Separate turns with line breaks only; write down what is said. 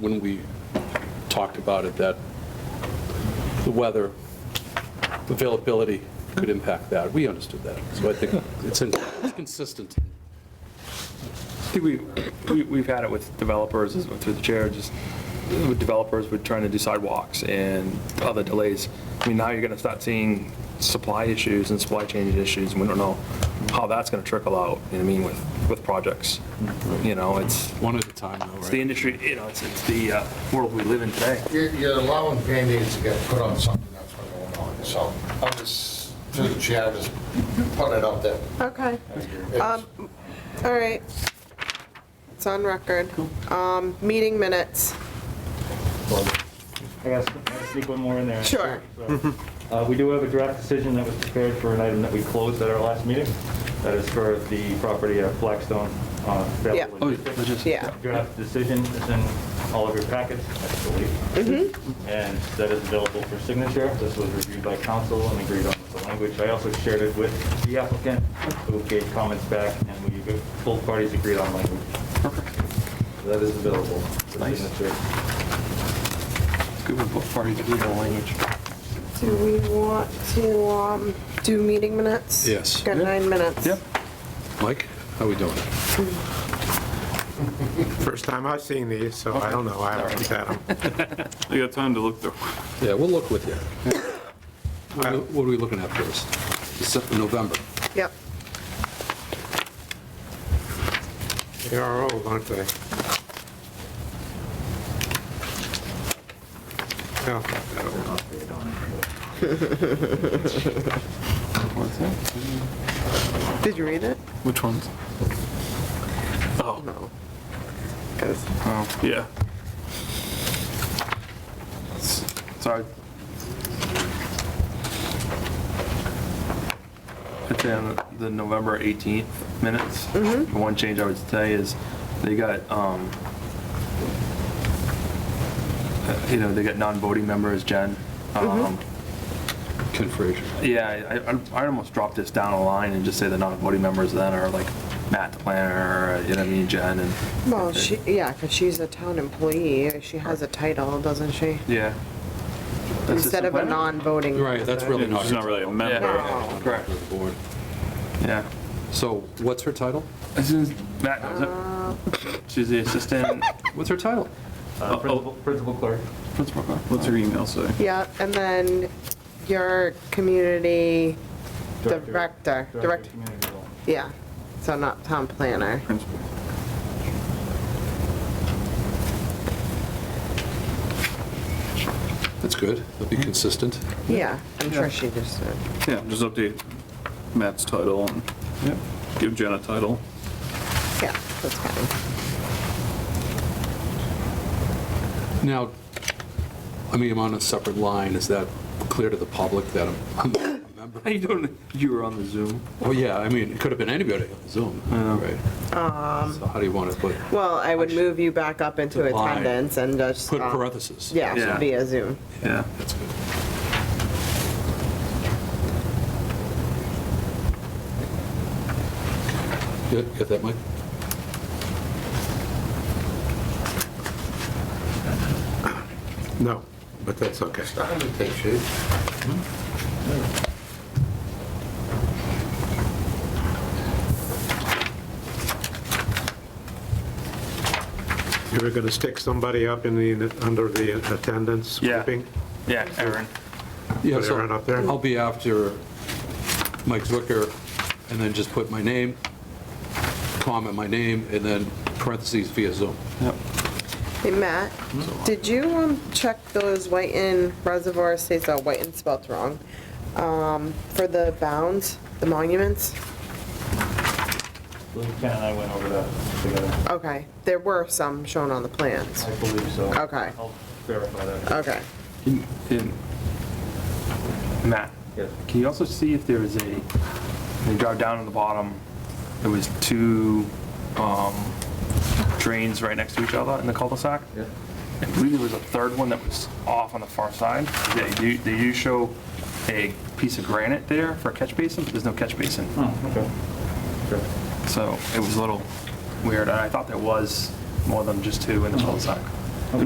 when we talked about it, that the weather availability could impact that. We understood that. So I think it's in- it's consistent.
I think we- we, we've had it with developers, as- through the chair, just with developers, we're trying to do sidewalks and other delays. I mean, now you're gonna start seeing supply issues and supply chain issues, and we don't know how that's gonna trickle out, you know, what I mean, with, with projects. You know, it's,
One at a time, though,
it's
right?
the industry, you know, it's, it's the uh, world we live in today.
You're you're allowing Band-Aids to get put on something that's not going on, so I'm just, through the chair, just putting it out there.
Okay,
It's-
all right. It's on record. Um, meeting minutes.
I gotta sn- I gotta sneak one more in there.
Sure.
So, uh, We do have a draft decision that was prepared for an item that we closed at our last meeting. That is for the property at Blackstone. uh, that
Yeah.
was-
Oh, logistics.
Yeah.
Draft decision is in all of your packets, I believe.
Mm-hmm.
And that is available for signature. This was reviewed by council and agreed on with the language. I also shared it with the applicant, who gave comments back, and we, both parties agreed on language. So That is available for signature.
Do we want to, um, do meeting minutes?
Yes.
Got nine minutes. Yep.
Mike, how we doing?
First time I've seen these, so I don't know. I haven't had them.
I got time to look through.
Yeah, we'll look with you. What are we- what are we looking at first? December, November.
Yep.
They are old, aren't they? Well,
Did you read it?
Which ones?
No. 'Cause-
Oh, yeah. Sorry.
It's in the November 18th minutes. The
Mm-hmm.
one change I would say is they got, um, uh, you know, they got non-voting members, Jen. Um,
Mm-hmm.
Ken Frazier.
Yeah, I- I, I almost dropped this down a line and just say the non-voting members then are like Matt the planner, you know what I mean, Jen and.
Well, she, yeah, because she's a town employee. She has a title, doesn't she?
Yeah.
Instead of a
Assistant planner?
non-voting.
Right, that's really not.
She's not really a member.
No.
Correct.
of the board.
Yeah.
So what's her title?
This is- Matt, knows it. she's the assistant
What's her title?
Uh, Principal principal clerk.
principal.
What's her email say?
Yeah, and then your community
Director-
director,
of
direct,
Community Development.
yeah, so not town planner.
Principal.
That's good. That'll be consistent.
Yeah, I'm
Yeah.
sure she just said.
Yeah, just update Matt's title and give Jen a title.
Yeah, that's fine.
Now, I mean, I'm on a separate line. Is that clear to the public that I'm- I'm a member?
How you doing? You were on the Zoom.
Oh, yeah, I mean, it could have been anybody on Zoom, right? So how do you want to put,
Well, I would move you back up into
To lie.
attendance and just.
put
um,
parentheses?
Yeah,
Yeah.
via Zoom.
Yeah.
That's good. Good, Got that, Mike?
No, but that's okay.
It's not gonna take shape.
You were going to stick somebody up in the, under the attendance
Yeah.
sweeping?
Yeah, Aaron.
Yeah,
Put it
so
right up there?
I'll be after Mike Zwicker, and then just put my name, comment my name, and then parentheses via Zoom.
Hey, Matt,
Mm-hmm.
did you um, check those Whiten Reservoir Estates, oh, Whiten spelled wrong, um, for the bounds, the monuments?
Lou, Ken and I went over that together.
Okay, there were some shown on the plans.
I believe so.
Okay.
I'll verify that.
Okay,
Can- can- Matt,
Yes.
can you also see if there is a, when you drive down to the bottom, there was two um, drains right next to each other in the cul-de-sac?
Yeah.
I believe there was a third one that was off on the far side. They do, they do show a piece of granite there for a catch basin, but there's no catch basin.
Oh, okay. Sure.
So it was a little weird, and I thought there was more than just two in the cul-de-sac.
Oh.